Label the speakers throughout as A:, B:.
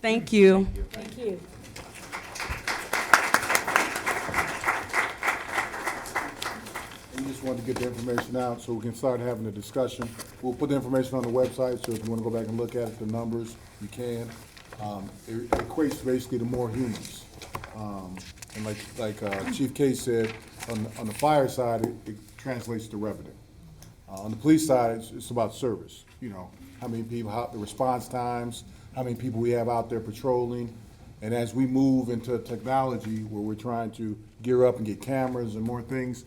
A: Thank you.
B: Thank you.
C: We just wanted to get the information out so we can start having the discussion. We'll put the information on the website, so if you want to go back and look at it, the numbers, you can. Um, It equates basically to more humans. Um, And like, like uh, Chief K said, on, on the fire side, it- it translates to revenue. Uh, On the police side, it's, it's about service, you know, how many people, how, the response times, how many people we have out there patrolling. And as we move into technology where we're trying to gear up and get cameras and more things,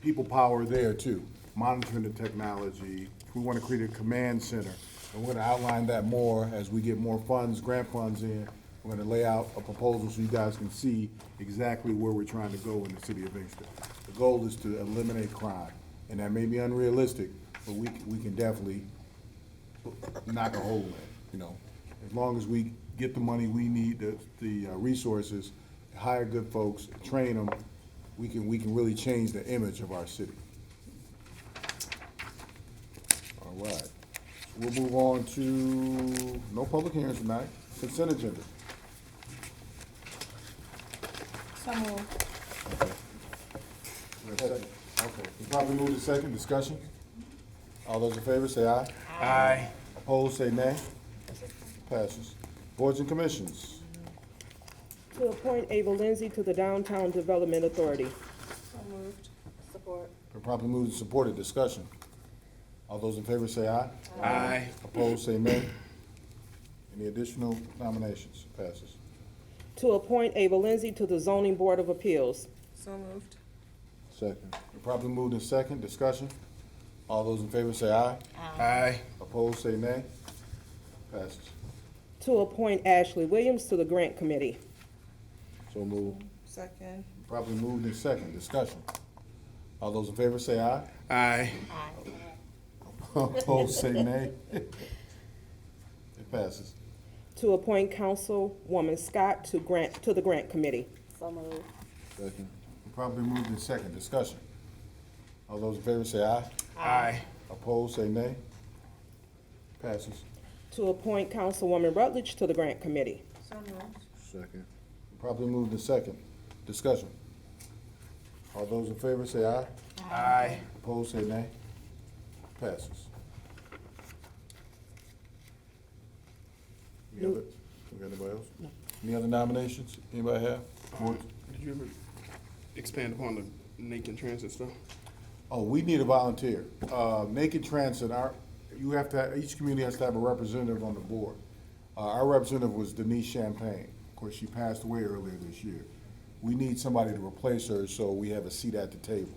C: people power there too, monitoring the technology. We want to create a command center, and we're going to outline that more as we get more funds, grant funds in. We're going to lay out a proposal so you guys can see exactly where we're trying to go in the city of Inkster. The goal is to eliminate crime, and that may be unrealistic, but we, we can definitely knock a hole in, you know. As long as we get the money we need, the, the uh, resources, hire good folks, train them, we can, we can really change the image of our city. All right. We'll move on to, no public hearings tonight, consent agenda.
B: So moved.
C: We have a second? Okay, we probably move to second discussion. All those in favor say aye.
D: Aye.
C: Opposed, say nay. Passes. Boards and commissions.
E: To appoint Ava Lindsay to the Downtown Development Authority.
B: So moved. Support.
C: Been properly moved and supported, discussion. All those in favor say aye.
D: Aye.
C: Opposed, say nay. Any additional nominations? Passes.
E: To appoint Ava Lindsay to the Zoning Board of Appeals.
B: So moved.
C: Second. Been properly moved and second, discussion. All those in favor say aye.
D: Aye.
C: Opposed, say nay. Passes.
E: To appoint Ashley Williams to the Grant Committee.
C: So moved.
B: Second.
C: Properly moved and second, discussion. All those in favor say aye.
D: Aye.
C: Opposed, say nay. It passes.
E: To appoint Councilwoman Scott to Grant, to the Grant Committee.
B: So moved.
C: Second. Properly moved in second, discussion. All those in favor say aye.
D: Aye.
C: Opposed, say nay. Passes.
E: To appoint Councilwoman Rutledge to the Grant Committee.
B: So moved.
C: Second. Properly moved in second, discussion. All those in favor say aye.
D: Aye.
C: Opposed, say nay. Passes. Any other, we got anybody else? No. Any other nominations anybody have? Boards?
D: Did you ever expand upon the Lincoln Transit stuff?
C: Oh, we need a volunteer. Uh, Naked Transit, our, you have to, each community has to have a representative on the board. Uh, Our representative was Denise Champagne. Of course, she passed away earlier this year. We need somebody to replace her, so we have a seat at the table.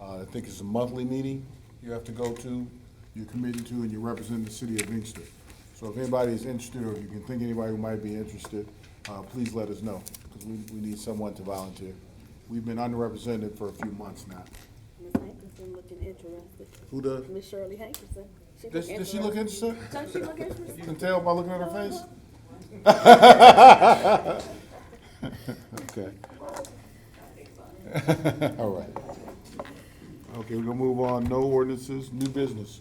C: Uh, I think it's a monthly meeting you have to go to, you're committed to, and you represent the city of Inkster. So if anybody is interested, or if you can think anybody who might be interested, uh, please let us know, because we, we need someone to volunteer. We've been underrepresented for a few months now.
F: Miss Hankerson looking interested.
C: Who does?
F: Miss Shirley Hankerson.
C: Does, does she look interested?
F: Don't she look interested?
C: You can tell by looking at her face? Okay. All right. Okay, we're gonna move on. No ordinances, new business.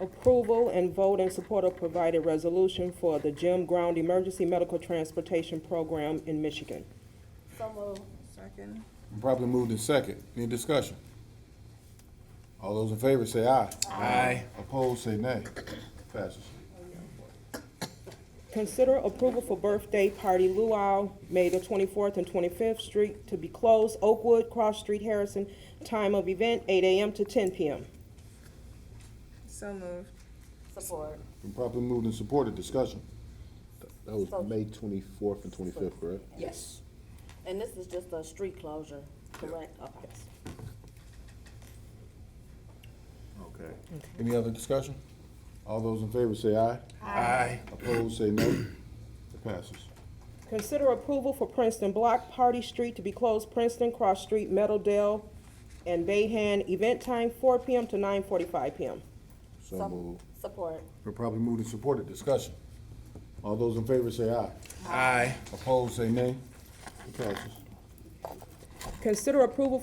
E: Approval and vote in support of provided resolution for the Jim Ground Emergency Medical Transportation Program in Michigan.
F: So moved.
B: Second.
C: Probably moved in second. Any discussion? All those in favor say aye.
D: Aye.
C: Opposed, say nay. Passes.
E: Consider approval for birthday party luau, May the twenty-fourth and twenty-fifth street to be closed, Oakwood, Cross Street, Harrison. Time of event, eight AM to ten PM.
B: So moved.
F: Support.
C: Been properly moved and supported. Discussion.
G: That was May twenty-fourth and twenty-fifth, correct?
F: Yes. And this is just a street closure, correct? Okay.
C: Okay. Any other discussion? All those in favor say aye.
D: Aye.
C: Opposed, say no. It passes.
E: Consider approval for Princeton Block, Party Street to be closed, Princeton, Cross Street, Meadowdale, and Bayhan. Event time, four PM to nine forty-five PM.
C: So moved.
F: Support.
C: Been properly moved and supported. Discussion. All those in favor say aye.
D: Aye.
C: Opposed, say nay. It passes.
E: Consider approval